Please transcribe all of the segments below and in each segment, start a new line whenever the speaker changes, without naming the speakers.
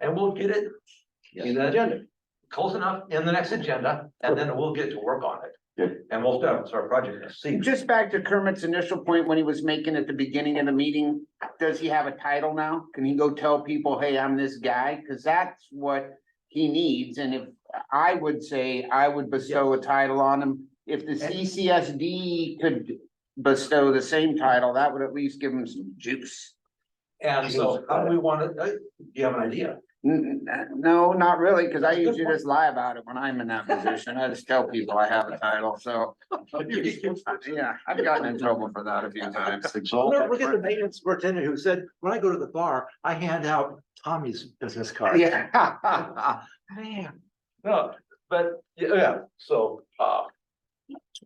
and we'll get it in the agenda, close enough in the next agenda, and then we'll get to work on it.
Good.
And we'll start, start project, see.
Just back to Kermit's initial point when he was making at the beginning of the meeting, does he have a title now? Can he go tell people, hey, I'm this guy? Cause that's what he needs. And if, I would say, I would bestow a title on him. If the CCSD could bestow the same title, that would at least give him some juice.
And so how do we want it, uh, do you have an idea?
N- n- No, not really, cause I
That's a good
usually
point.
just lie about it when I'm in that position. I just tell people I have a title, so. Yeah, I've gotten in trouble for that a few times.
Look at
So,
the maintenance superintendent who said, when I go to the bar, I hand out Tommy's business card.
Yeah.
Man.
No, but, yeah, yeah, so, uh,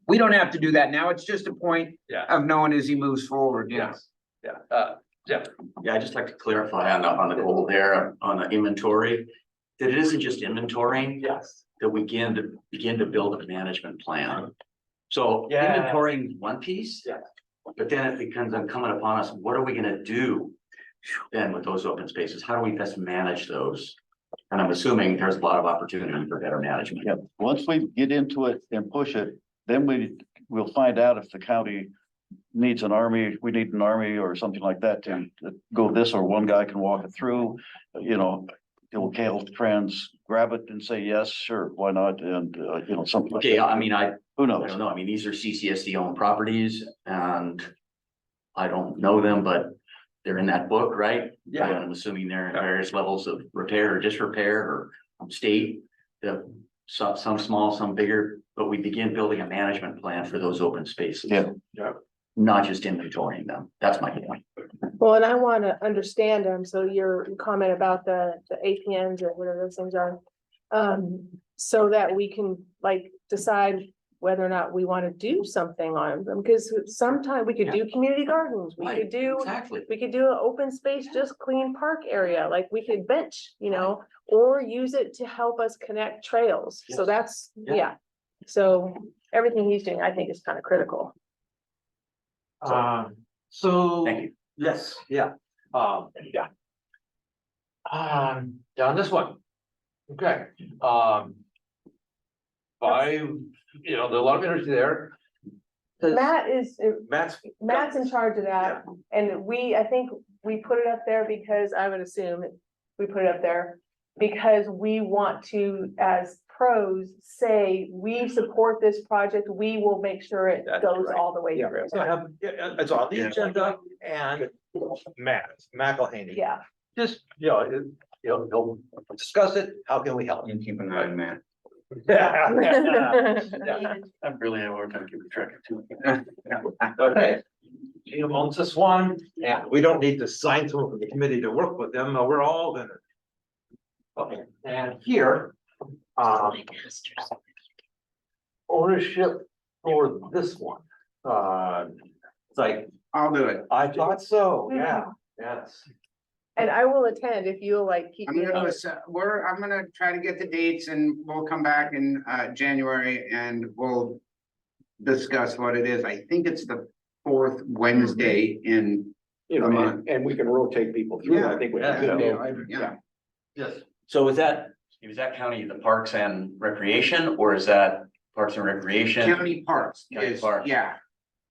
We don't have to do that now. It's just a point
Yeah.
of knowing as he moves forward, yeah.
yes, yeah, uh,
Yeah, I'd just like to clarify on the, on the goal there, on the inventory, that it isn't just inventorying,
yes,
that we begin to, begin to build a management plan. So
Yeah.
inventorying is one piece.
Yeah.
But then it becomes incumbent upon us, what are we gonna do then with those open spaces? How do we best manage those? And I'm assuming there's a lot of opportunity for better management.
yeah, once we get into it and push it, then we will find out if the county needs an army, we need an army or something like that to to go this, or one guy can walk it through, you know. It'll, he'll trans, grab it and say, yes, sure, why not? And, uh, you know, something. like
Okay,
that.
I mean, I,
Who
I don't
knows?
know, I mean, these are CCSD owned properties and I don't know them, but they're in that book, right?
Yeah.
And I'm assuming they're in various levels of repair or disrepair or state, the, some, some small, some bigger, but we begin building a management plan for those open spaces.
Yeah.
Yeah.
Not just inventorying them, that's my point.
Well, and I want to understand them, so your comment about the, the APNs or whatever those things are. Um, so that we can like decide whether or not we want to do something on them, because sometime we could do community gardens, we
Right,
could do.
Exactly.
We could do an open space, just clean park area, like we could bench, you know, or use it to help us connect trails, so
Yes.
that's,
Yeah.
yeah. So everything he's doing, I think is kind of critical.
Um, so,
Thank you.
yes, yeah, um, yeah. Um, down this one. Okay, um. Five, you know, there's a lot of energy there.
Matt is,
Matt's
Matt's in charge of that, and we, I think we put it up there because I would assume we put it up there. Because we want to, as pros, say, we support this project, we will make sure it
That's
goes
right.
all the way
Yeah,
through.
so I have, yeah, yeah, it's on the agenda and Matt, McElhaney.
Yeah,
Just, you know, it- you know, he'll discuss it, how can we help?
And keep an eye on that.
Yeah.
I'm really at work, I'm keeping track of two.
Okay. He owns this one, and we don't need to sign someone from the committee to work with them, uh, we're all gonna. Okay, and here, um. Ownership for this one, uh, it's like,
I'll do it.
I thought so, yeah, yes.
and I will attend if you'll like keep
I'm
me.
gonna, listen- we're, I'm gonna try to get the dates and we'll come back in, uh, January and we'll discuss what it is. I think it's the fourth Wednesday in,
you know,
Come on.
and, and we can rotate people through, I think. we
Yeah.
can do.
yeah.
Yes.
So is that, is that county the Parks and Recreation or is that Parks and Recreation?
County Parks
County
is,
Parks.
yeah.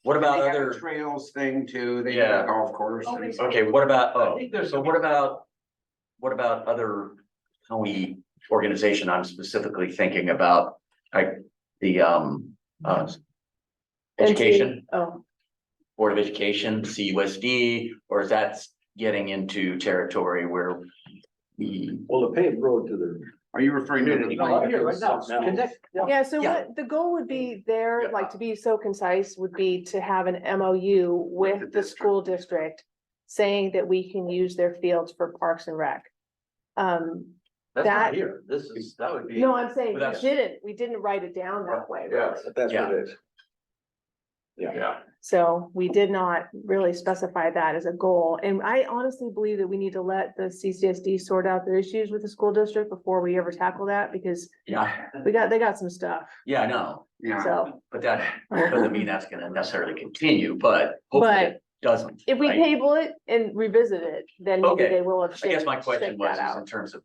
What about
They have a
other?
Trails thing too. They have
Yeah.
a golf course. and-
Okay, what about,
I
oh,
think there's
so
some-
what about, what about other county organization? I'm specifically thinking about, like, the, um, uh, education,
Oh,
Board of Education, CUSD, or is that getting into territory where we,
Well, the paved road to the.
Are you referring to? the
No, I'm here right now.
No.
Connect-
yeah, so
Yeah.
what, the goal would be there,
Yeah.
like to be so concise, would be to have an MOU
the
with the
district.
school district. Saying that we can use their fields for parks and rec. Um,
That's not
That-
here, this is, that would be.
no, I'm saying,
But
we
that's-
didn't, we didn't write it down that way,
Yeah.
really.
That's what it is.
Yeah,
So we did not really specify that as a goal, and I honestly believe that we need to let the CCSD sort out their issues with the school district before we ever tackle that, because
yeah,
we got, they got some stuff,
yeah, I know,
Yeah.
so.
but that doesn't mean that's gonna necessarily continue, but hopefully
But
it doesn't.
if we
right?
table it and revisit it, then maybe
Okay.
they will have.
I guess
shaped-
my question
shaped that
was is
out.
in terms of